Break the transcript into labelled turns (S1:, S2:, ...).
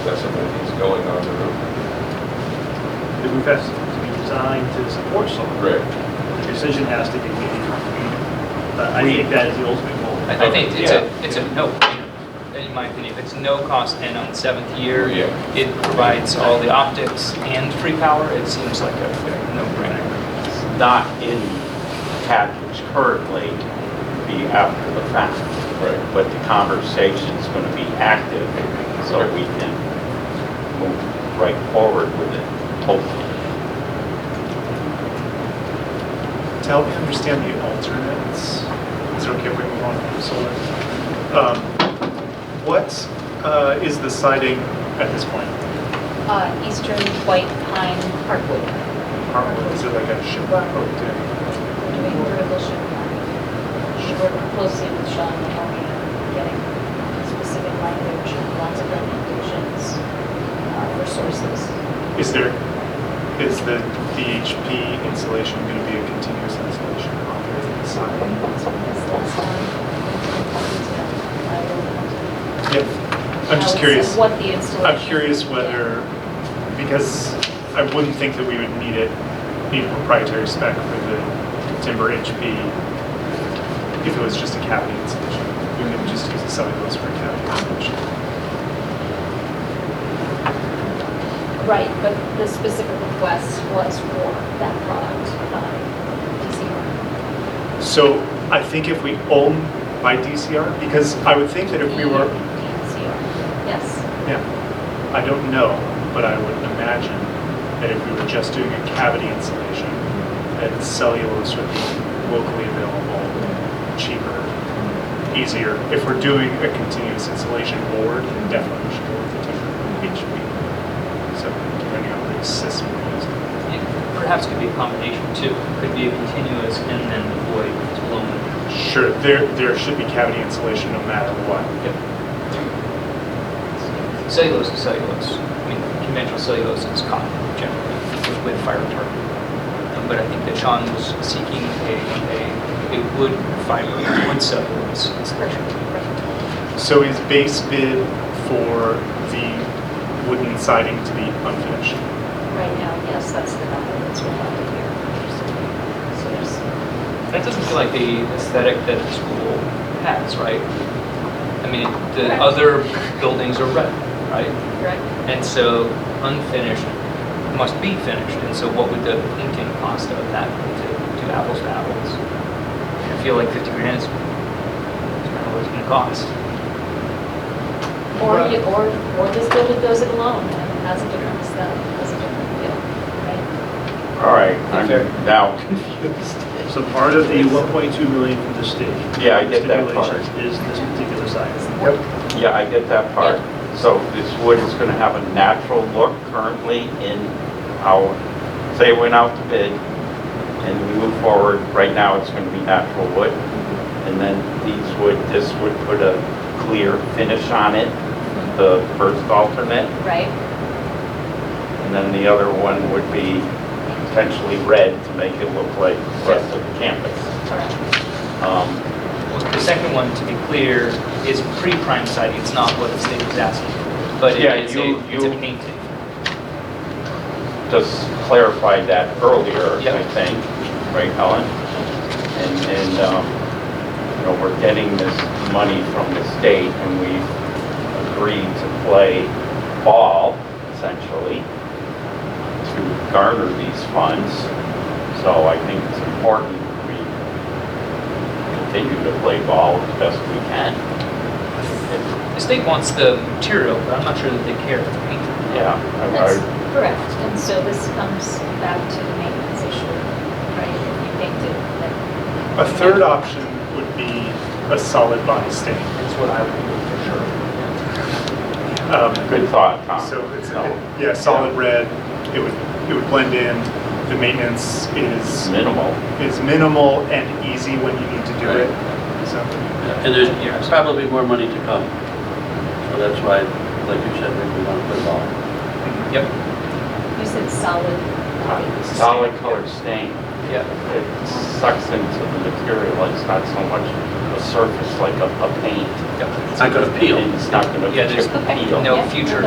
S1: accessibilities going on the roof.
S2: The roof has to be designed to support solar.
S1: Right.
S2: The decision has to be made. But I think that is the ultimate goal.
S3: I I think it's
S1: Yeah.
S3: a, it's a no, in my opinion, it's no cost and on seventh year,
S1: Oh, Yeah.
S3: it provides all the optics and free power, it seems like a no-brainer.
S4: not in package currently, be after the fact.
S1: Right.
S4: But the conversation's gonna be active, so we can move right forward with it, hopefully.
S2: To help me understand the alternates, is it okay if we move on from solar? Um, What uh, is the siding at this point?
S5: Uh, Eastern White Pine Hardwood,
S2: Hardwood, is it like a ship?
S5: Right.
S2: Oh, damn.
S5: we're doing vertical ship pine. She worked closely with Sean Mahoney on getting specific language, and lots of recommendations uh, for sources.
S2: Is there, is the DHP insulation going to be a continuous insulation on the siding?
S5: I'm
S2: Yep, I'm just curious.
S5: What the installation.
S2: I'm curious whether, because I wouldn't think that we would need it, need a proprietary spec for the timber HP if it was just a cavity insulation. We could just use a cellulose for a cavity insulation.
S5: Right, but the specific request was for that product by DCR.
S2: So I think if we own by DCR, because I would think that if we were,
S5: DCR, yes.
S2: yeah, I don't know, but I would imagine that if we were just doing a cavity insulation, that cellulose would be locally available, cheaper, easier. If we're doing a continuous insulation board, then definitely we should go with the timber HB. So depending on the system we're using.
S3: It Perhaps could be a combination too, could be a continuous and then the void is blown.
S2: Sure, there, there should be cavity insulation no matter what.
S3: Cellulose is cellulose, I mean, conventional cellulose is cotton generally, with fire retardant. Um, But I think that Sean was seeking a, a, a wood fiber, wood cellulose insulation.
S2: So is base bid for the wooden siding to be unfinished?
S5: Right now, yes, that's the number that's reflected here. So there's,
S3: That doesn't feel like the aesthetic that the school has, right? I mean, the
S5: Correct.
S3: other buildings are red, right?
S5: correct?
S3: And so unfinished must be finished, and so what would the painting cost of that to do apples to apples? I feel like 50 grand is is kind of what it's gonna cost.
S5: Or you, or, or this building goes it alone and has a different aesthetic, has a different feel, right?
S4: All right, I'm now confused.
S6: So part of the 1.2 million from the state.
S4: Yeah, I get that part.
S6: stipulations Is this particular site.
S4: Yeah, I get that part. So this wood is gonna have a natural look currently in our, say it went out to bid and we move forward, right now it's gonna be natural wood. And then these would, this would put a clear finish on it, the first alternate.
S5: Right?
S4: And then the other one would be potentially red to make it look like the rest of the campus.
S5: Correct.
S4: Um,
S3: Well, The second one, to be clear, is pre-prime siding, it's not what the state was asking, but
S4: Yeah,
S3: it is
S4: you-
S3: a, it's a
S4: you-
S3: painting.
S4: just clarified that earlier, I
S3: Yep.
S4: think, right, Helen? And, and, um, you know, we're getting this money from the state and we agreed to play ball, essentially, to garner these funds. So I think it's important we continue to play ball as best we can.
S3: The state wants the material, but I'm not sure that they care if it's painted.
S4: Yeah. I- I-
S5: That's correct. And so this comes back to the maintenance issue, right? If you think
S2: A
S5: that,
S2: third option would be a solid body stain, is what I would do for sure. Um,
S4: Good thought, Tom.
S2: So it's,
S4: No.
S2: yeah, solid red, it would, it would blend in, the maintenance is,
S4: Minimal.
S2: is minimal and easy when you need to do it. So,
S7: And there's probably more money to come. So that's why, like you said, we want to put it all.
S3: Yep,
S5: you said solid body.
S4: Solid colored stain.
S3: yep.
S4: it sucks into the material, it's not so much a surface like a, a paint.
S3: yep.
S7: It's not going to peel.
S4: And It's not gonna
S3: Yeah, there's
S4: chip and peel.
S3: No future